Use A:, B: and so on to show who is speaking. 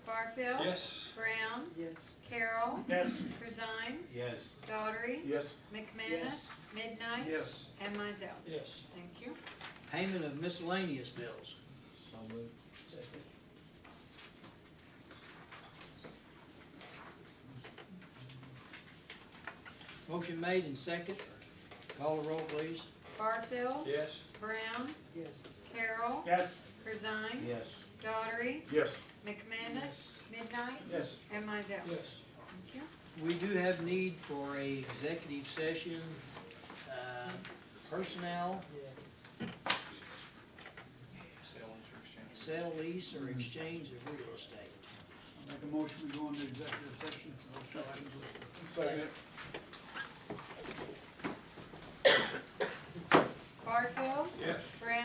A: Littlefield.
B: Yes.
A: Brown.
C: Yes.
A: Carroll.
B: Yes.
A: Corzine.
D: Yes.
A: Daughtry.
D: Yes.
A: McManus. Midnight.
B: Yes.
A: And Mizell.
E: Yes.
A: Thank you.
E: Payment of miscellaneous bills.
D: So moved.
E: Second. Motion made and second. Call the roll, please.
A: Barfield.
B: Yes.
A: Brown.
C: Yes.
A: Carroll.
B: Yes.
A: Corzine.
D: Yes.
A: Daughtry.
D: Yes.
A: McManus. Midnight.
B: Yes.
A: And Mizell.
E: Yes.
A: Thank you.
E: We do have need for a executive session, uh, personnel, sale, lease, or exchange of real estate.
B: Make a motion, we go into executive session for those two items listed.
D: Second.
A: Barfield.
B: Yes.
A: Brown.